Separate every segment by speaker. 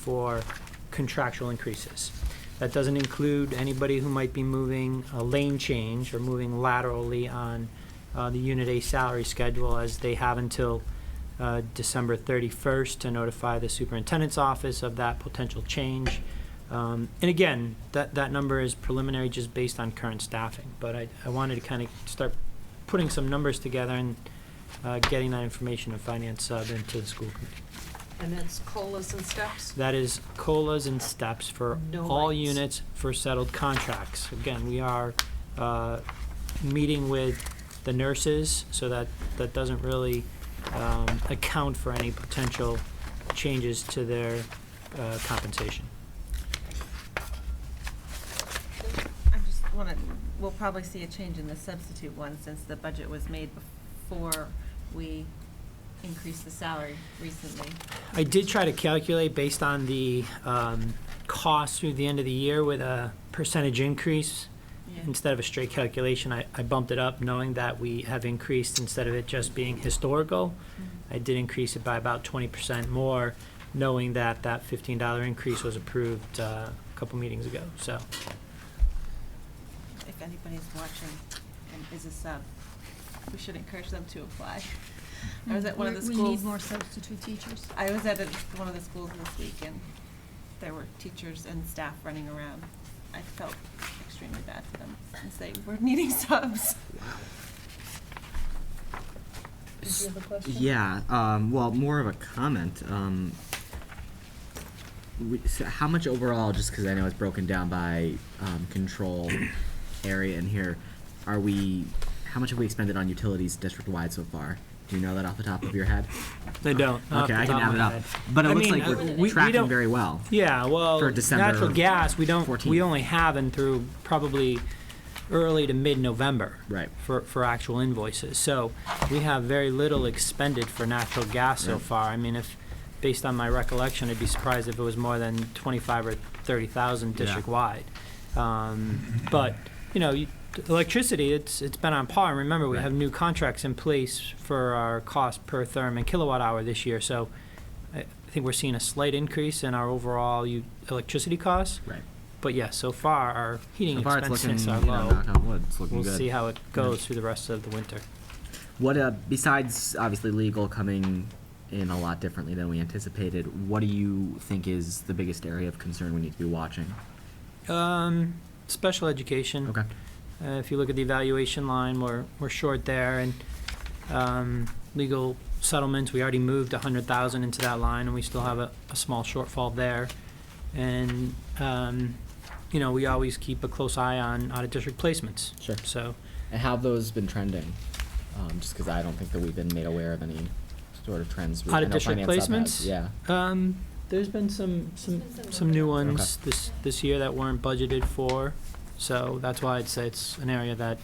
Speaker 1: for contractual increases. That doesn't include anybody who might be moving a lane change or moving laterally on uh, the Unit A salary schedule, as they have until uh, December 31st to notify the superintendent's office of that potential change. Um, And again, that, that number is preliminary just based on current staffing, but I, I wanted to kind of start putting some numbers together and uh, getting that information of finance sub into the school committee.
Speaker 2: And that's colas and steps?
Speaker 1: That is COLAs and steps for
Speaker 2: No
Speaker 1: all
Speaker 2: lights.
Speaker 1: units for settled contracts. Again, we are uh, meeting with the nurses, so that, that doesn't really um, account for any potential changes to their uh, compensation.
Speaker 3: I just want to, we'll probably see a change in the substitute one since the budget was made before we increased the salary recently.
Speaker 1: I did try to calculate based on the um, cost through the end of the year with a percentage increase.
Speaker 3: Yeah.
Speaker 1: Instead of a straight calculation, I, I bumped it up knowing that we have increased instead of it just being historical.
Speaker 3: Mm-hmm.
Speaker 1: I did increase it by about twenty percent more, knowing that that fifteen dollar increase was approved uh, a couple meetings ago. So
Speaker 3: If anybody's watching and is a sub, we should encourage them to apply. I was at one of the
Speaker 4: We're- We
Speaker 3: schools-
Speaker 4: need more substitute teachers.
Speaker 3: I was at a- one of the schools this week and there were teachers and staff running around. I felt extremely bad for them since they were needing subs.
Speaker 4: Did you have a question?
Speaker 5: Yeah, um, well, more of a comment. Um, we, so how much overall, just because I know it's broken down by um, control area in here, are we, how much have we expended on utilities district wide so far? Do you know that off the top of your head?
Speaker 1: they don't. not off
Speaker 5: okay,
Speaker 1: the
Speaker 5: I can
Speaker 1: top of
Speaker 5: add it
Speaker 1: my
Speaker 5: up.
Speaker 1: head.
Speaker 5: But it
Speaker 1: I
Speaker 5: looks
Speaker 1: mean,
Speaker 5: like
Speaker 1: uh,
Speaker 5: we're
Speaker 1: we- we
Speaker 5: tracking
Speaker 1: don't-
Speaker 5: very well.
Speaker 1: Yeah, well,
Speaker 5: For December
Speaker 1: natural gas, we don't,
Speaker 5: 14th.
Speaker 1: we only have through probably early to mid-November.
Speaker 5: Right.
Speaker 1: For, for actual invoices. So we have very little expended for natural gas so
Speaker 5: Right.
Speaker 1: far. I mean, if, based on my recollection, I'd be surprised if it was more than 25 or 30,000
Speaker 5: Yeah.
Speaker 1: district-wide. Um, But, you know, you- electricity, it's, it's been on par. And remember, we
Speaker 5: Right.
Speaker 1: have new contracts in place for our cost per therm and kilowatt hour this year. So I think we're seeing a slight increase in our overall u- electricity costs.
Speaker 5: Right.
Speaker 1: But yes, so far, our heating
Speaker 5: So far, it's looking,
Speaker 1: expenses
Speaker 5: you
Speaker 1: are
Speaker 5: know,
Speaker 1: low.
Speaker 5: knock on wood, it's looking
Speaker 1: We'll
Speaker 5: good.
Speaker 1: see how it goes through the rest of the winter.
Speaker 5: What uh, besides obviously legal coming in a lot differently than we anticipated, what do you think is the biggest area of concern we need to be watching?
Speaker 1: Um, Special education.
Speaker 5: Okay.
Speaker 1: Uh, If you look at the evaluation line, we're, we're short there, and um, legal settlements, we already moved a hundred thousand into that line, and we still have a, a small shortfall there. And, um, you know, we always keep a close eye on out-of-district placements.
Speaker 5: Sure.
Speaker 1: So,
Speaker 5: And how have those been trending? Um, just because I don't think that we've been made aware of any sort of trends. We- I know
Speaker 1: Out-of-district
Speaker 5: Finance Hub has,
Speaker 1: placements?
Speaker 5: Yeah.
Speaker 1: um, there's been some, some,
Speaker 4: There's been some
Speaker 1: some new
Speaker 4: movement.
Speaker 1: ones
Speaker 5: Okay.
Speaker 1: this, this year that weren't budgeted for, so that's why I'd say it's an area that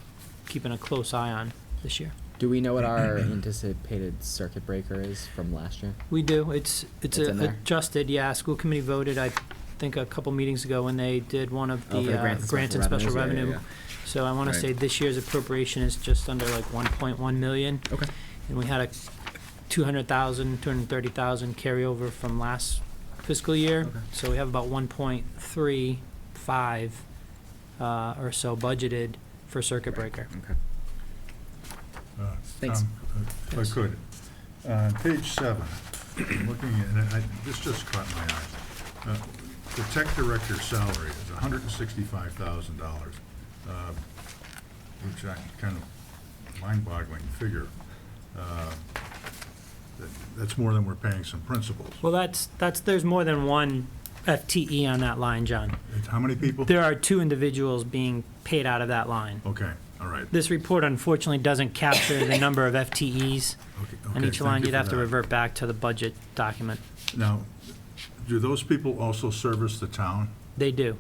Speaker 1: keeping a close eye on this year.
Speaker 5: Do we know what our anticipated circuit breaker is from last year?
Speaker 1: We do, it's, it's
Speaker 5: It's in
Speaker 1: a-
Speaker 5: there?
Speaker 1: adjusted, yeah, school committee voted, I think, a couple meetings ago when they did one of
Speaker 5: Oh, for
Speaker 1: the uh, grants and special
Speaker 5: revenues? Yeah, yeah,
Speaker 1: revenue. So I wanna
Speaker 5: Right.
Speaker 1: say this year's appropriation is just under like one point one million,
Speaker 5: yeah. Okay.
Speaker 1: and we had a two hundred thousand, two hundred and thirty thousand carryover from last fiscal year.
Speaker 5: Okay.
Speaker 1: So we have about one point three five, uh, or so budgeted for circuit breaker.
Speaker 5: Okay.
Speaker 6: Uh,
Speaker 5: Thanks.
Speaker 6: Tom, If
Speaker 1: Yes.
Speaker 6: I could, on page seven, I'm looking at, and I, this just caught my eye. Uh, The tech director's salary is hundred and sixty-five thousand dollars, um, which I kind of mind-boggling figure. Uh, that- That's more than we're paying some principals.
Speaker 1: Well, that's, that's, there's more than one FTE on that line, John.
Speaker 6: It's How many people?
Speaker 1: There are two individuals being paid out of that line.
Speaker 6: Okay, all right.
Speaker 1: This report unfortunately doesn't capture the number of FTEs
Speaker 6: Okay,
Speaker 1: on
Speaker 6: okay,
Speaker 1: each
Speaker 6: thank
Speaker 1: line.
Speaker 6: you
Speaker 1: You'd
Speaker 6: for
Speaker 1: have to
Speaker 6: that.
Speaker 1: revert back to the budget document.
Speaker 6: Now, do those people also service the town?
Speaker 1: They do,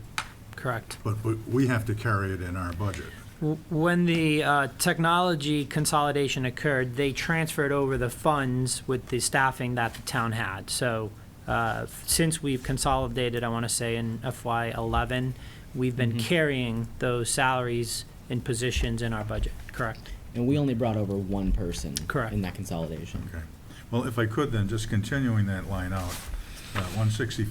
Speaker 1: correct.
Speaker 6: But we- we have to carry it in our budget.
Speaker 1: W- When the uh, technology consolidation occurred, they transferred over the funds with the staffing that the town had. So uh, since we've consolidated, I want to say in FY '11, we've been carrying those salaries and positions in our budget, correct?
Speaker 5: And we only brought over one person.
Speaker 1: Correct.
Speaker 5: In that consolidation.
Speaker 6: Okay. Well, if I could then, just continuing that line out, uh, 165